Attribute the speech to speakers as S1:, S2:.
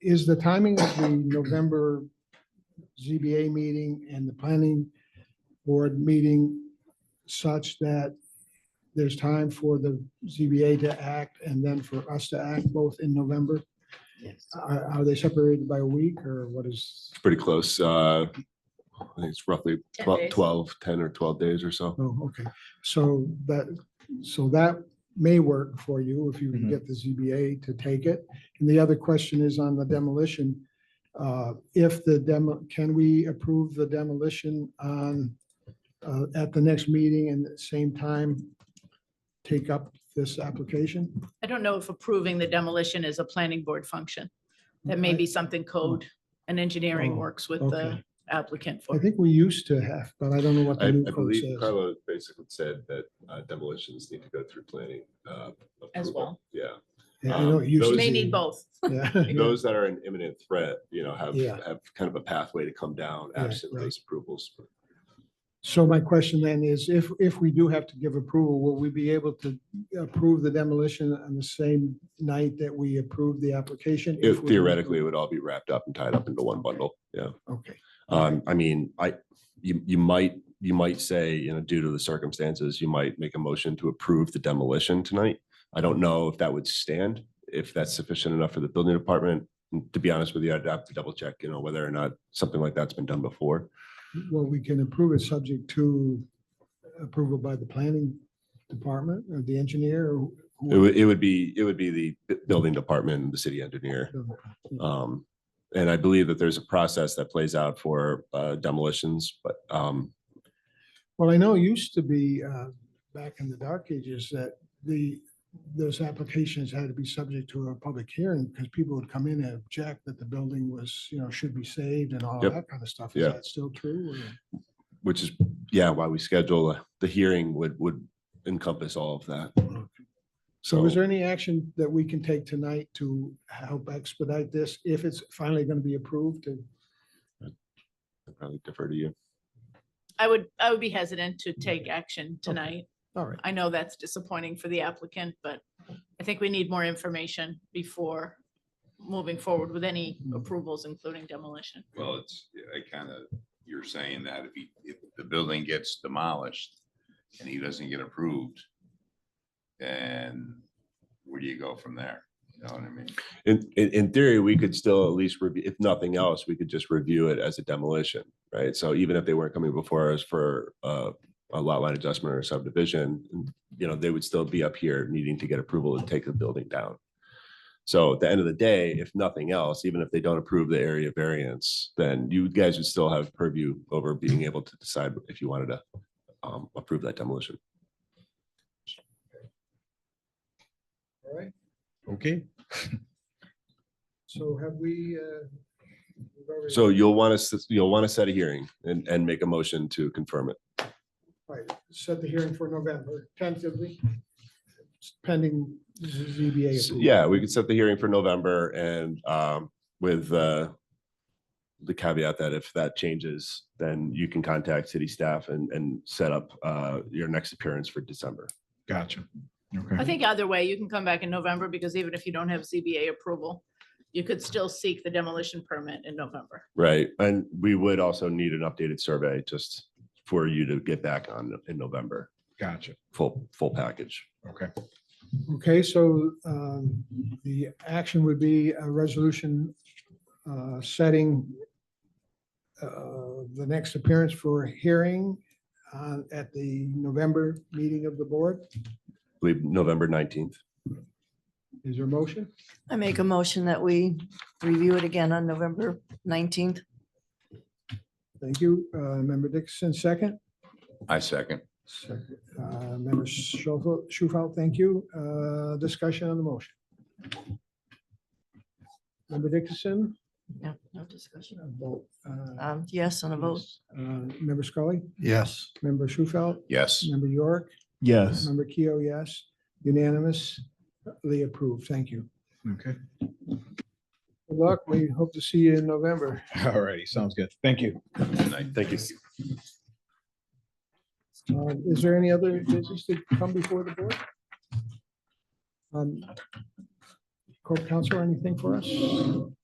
S1: is the timing of the November ZBA meeting and the planning board meeting such that there's time for the ZBA to act and then for us to act both in November?
S2: Yes.
S1: Are, are they separated by a week or what is?
S3: It's pretty close. Uh, I think it's roughly
S2: 10
S3: 12
S2: days.
S3: 12, 10 or 12 days or so.
S1: Oh, okay. So that, so that may work for you if you can
S4: Mhm.
S1: get the ZBA to take it. And the other question is on the demolition. Uh, If the demo, can we approve the demolition on, uh, at the next meeting and at the same time take up this application?
S2: I don't know if approving the demolition is a planning board function. That may be something code and engineering
S1: Oh,
S2: works with the
S1: okay.
S2: applicant
S1: I
S2: for.
S1: think we used to have, but I don't know what
S3: I,
S1: the
S3: I
S1: new code
S3: believe
S1: says.
S3: Carlo basically said that uh, demolitions need to go through planning. uh,
S2: As
S3: approval.
S2: well.
S3: Yeah.
S1: Yeah, I know it used
S3: those-
S1: to
S2: May
S1: be.
S2: need both.
S1: Yeah.
S3: Those that are an imminent threat, you know, have,
S1: Yeah.
S3: have kind of a pathway to come down
S1: Right,
S3: absent
S1: right.
S3: those approvals.
S1: So my question then is, if, if we do have to give approval, will we be able to approve the demolition on the same night that we approve the application?
S3: It-
S1: If we-
S3: Theoretically, it would all be wrapped up and tied up into one bundle. Yeah.
S1: Okay,
S3: Um, I mean, I, you, you might, you might say, you know, due to the circumstances, you might make a motion to approve the demolition tonight. I don't know if that would stand, if that's sufficient enough for the building department. And To be honest with you, I'd have to double check, you know, whether or not something like that's been done before.
S1: well, we can approve it subject to approval by the planning department or the engineer or.
S3: It
S1: who-
S3: would, it would be, it would be the bu- building department, and the city engineer. Um, and I believe that there's a process that plays out for uh, demolitions, but, um,
S1: Well, I know it used to be uh, back in the dark ages that the, those applications had to be subject to a public hearing because people would come in and object that the building was, you know, should be saved and all
S3: Yep.
S1: that kind of stuff.
S3: Yeah.
S1: Is that still true? or-
S3: which is, yeah, why we schedule a- the hearing would, would encompass all of that.
S1: So is there any action that we can take tonight to help expedite this if it's finally going to be approved? And
S3: I Probably defer to you.
S2: I would, I would be hesitant to take action tonight.
S1: All right,
S2: I know that's disappointing for the applicant, but I think we need more information before moving forward with any
S1: Mm-hmm.
S2: approvals, including demolition.
S5: Well, it's, I kind of, you're saying that if he, if the building gets demolished and he doesn't get approved, then where do you go from there? You know what I mean?
S3: In, in, in theory, we could still at least review, if nothing else, we could just review it as a demolition, right? So even if they weren't coming before us for uh, a lot line adjustment or subdivision, you know, they would still be up here needing to get approval to take the building down. So at the end of the day, if nothing else, even if they don't approve the area variance, then you guys would still have purview over being able to decide if you wanted to um, approve that demolition.
S4: Okay,
S1: so have we? uh, we've already-
S3: So you'll want to, you'll want to set a hearing and, and make a motion to confirm it.
S1: Right, set the hearing for November tentatively, pending ZBA.
S3: S-
S1: approval.
S3: Yeah, we could set the hearing for November and um, with uh, the caveat that if that changes, then you can contact city staff and, and set up uh, your next appearance for December.
S4: gotcha.
S1: Mm-hmm.
S2: I
S4: Okay,
S2: think either way, you can come back in November because even if you don't have ZBA approval, you could still seek the demolition permit in November.
S3: Right. And we would also need an updated survey just for you to get back on in November,
S4: gotcha.
S3: full, full package.
S4: Okay.
S1: Okay, so um, the action would be a resolution uh, setting uh, the next appearance for a hearing uh, at the November meeting of the board.
S3: I believe November 19th.
S1: Is there a motion?
S6: I make a motion that we review it again on November nineteenth.
S1: Thank you. Uh, Member Dixon, second.
S5: I second.
S1: Second. Uh, Member Schofel, Schufel, thank you. Uh, Discussion on the motion. Member Dixon,
S6: No, no discussion.
S1: a vote. Uh,
S6: Um, yes, on a vote.
S1: yes. Uh, Member Scully,
S4: Yes.
S1: Member Schufel,
S5: Yes.
S1: Member York,
S4: Yes.
S1: Member Keo, yes. Unanimously approved. Thank you.
S4: Okay,
S1: Good luck. We hope to see you in November.
S4: all righty, sounds good. Thank you.
S3: Thank you.
S1: Uh, Is there any other business to come before the board? Um, Corp counsel, anything for us?